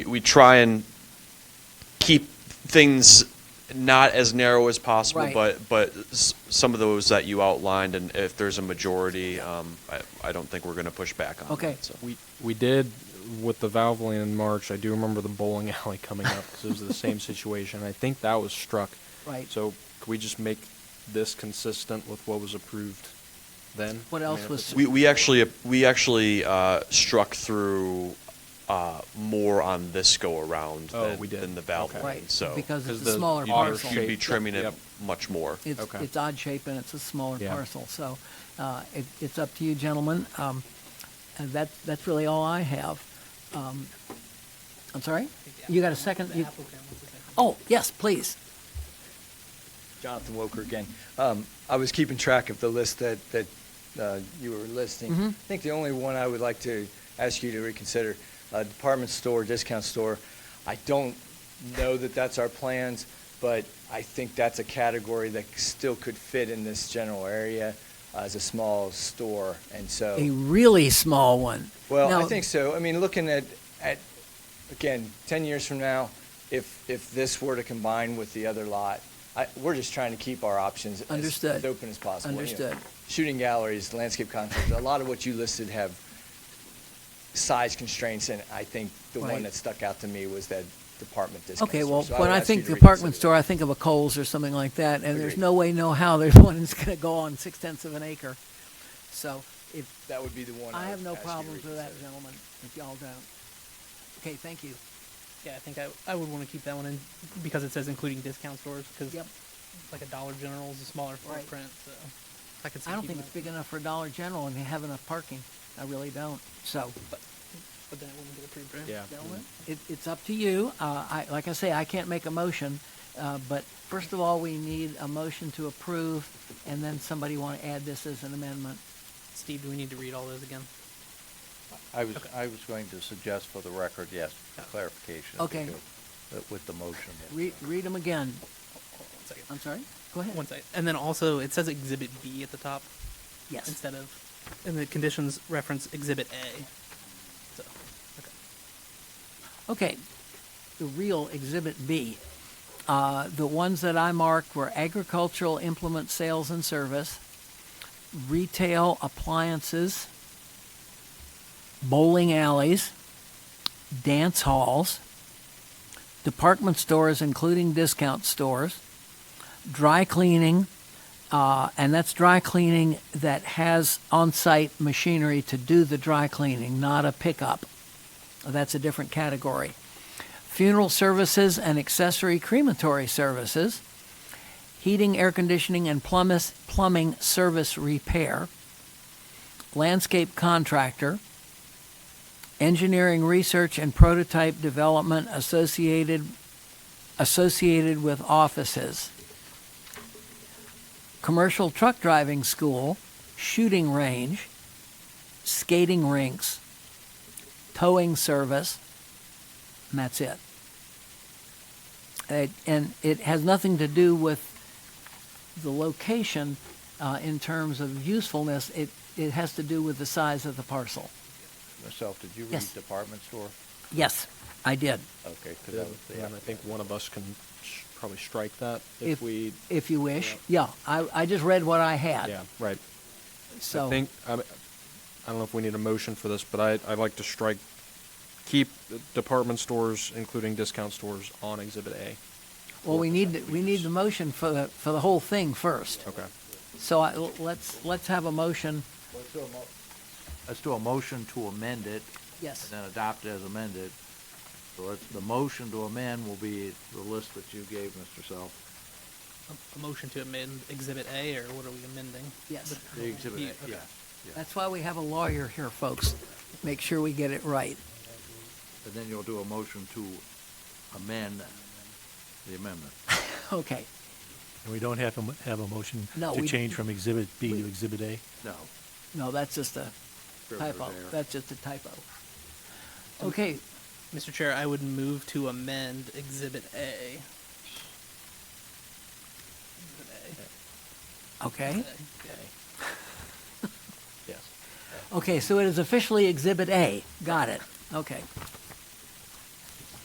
we try and keep things not as narrow as possible, Right. but, but s- some of those that you outlined, and if there's a majority, um, I, I don't think we're gonna push back on that. Okay. so. We we did with the valve lane in March. I do remember the bowling alley coming up because it was the same situation. I think that was struck. Right. So could we just make this consistent with what was approved then? What I else mean, if was- it's- We, we actually, we actually, uh, struck through, uh, more on this go-around Oh, than, we did. than the valve Okay. lane, Right, so. because it's 'Cause a the smaller odd You'd be- parcel. You'd be shape. trimming it Yep. much more. It's, Okay. it's odd shape and it's a smaller Yeah. parcel, so, uh, it, it's up to you gentlemen. Um, and that, that's really all I have. Um, I'm sorry? You got a second? You- Oh, yes, please. Jonathan Woker again. Um, I was keeping track of the list that, that uh, you were listing. I think the only one I would like to ask you to reconsider, uh, department store, discount store. I don't know that that's our plans, but I think that's a category that still could fit in this general area as a small store, and so. A really small one. Well, I Now- think so. I mean, looking at, at, again, 10 years from now, if, if this were to combine with the other lot, I, we're just trying to keep our options as, Understood. as open as possible. you know. Understood. Shooting galleries, landscape concepts, a lot of what you listed have size constraints, and I think the Right. one that stuck out to me was that department discount Okay, store. well, So when would I ask you think to department reconsider store, I think of a Kohl's or something like that, and there's Agreed. no way, no how, there's one that's gonna go on six tenths of an acre. So if, that. That would be the one. I would have no ask you to problems with that, reconsider. gentlemen, if y'all don't. Okay, thank you. Yeah, I think I, I would want to keep that one in because it says including discount stores because Yep. like a Dollar General is a smaller Right. footprint, so I could. see I don't keeping think it's that, big enough for Dollar General and they have enough parking. I really don't. So, but then it wouldn't get approved. Right? Yeah. gentlemen, it, it's up to you. Uh, I, like I say, I can't make a motion. Uh, but first of all, we need a motion to approve and then somebody want to add this as an amendment. Steve, do we need to read all those again? I was, I was going to suggest for the record, yes, clarification. if Okay. you could, uh, With the motion. Read, read them again. One second. I'm sorry? Go ahead. Um, One second. And then also it says Exhibit B at the top Yes. instead of, and the conditions reference Exhibit A. So, okay. Okay, the real Exhibit B. Uh, the ones that I marked were agricultural implement sales and service, retail appliances, bowling alleys, dance halls, department stores, including discount stores, dry cleaning, uh, and that's dry cleaning that has on site machinery to do the dry cleaning, not a pickup. That's a different category. Funeral services and accessory crematory services, heating, air conditioning, and plumbis- plumbing service repair, landscape contractor, engineering research and prototype development associated associated with offices, commercial truck driving school, shooting range, skating rinks, towing service, and that's it. It- and it has nothing to do with the location uh, in terms of usefulness. It, it has to do with the size of the parcel. Myself, did you read Yes. department store? Yes, I did. Okay, because Yeah, that was the. And I think one of us can sh- probably strike that If- if we, If you wish, yeah. I, I just read what I had. yeah, right. So I think, I mean, I don't know if we need a motion for this, but I, I'd like to strike, keep the department stores, including discount stores, on Exhibit A. well, we need to- we need the motion for the for the whole thing first. Okay. So I, let's let's have a motion. Let's do a mo- Let's do a motion to amend it and Yes. then adopt as amended. So let's, the motion to amend will be the list that you gave, Mr. Self. A- A motion to amend Exhibit A, or what are we amending? Yes. The exhibit, Yeah, A, okay. yeah, yeah. That's why we have a lawyer here, folks. Make sure we get it right. And then you'll do a motion to amend the amendment. Okay. And we don't have to m- have a motion No, to we- change from Exhibit B we- to Exhibit A? No. No, that's just a typo. That's just a typo. Okay, Mr. Chair, I would move to amend Exhibit A. Exhibit okay. A. Okay. Yes. Okay, so it is officially Exhibit A. Got it. Okay.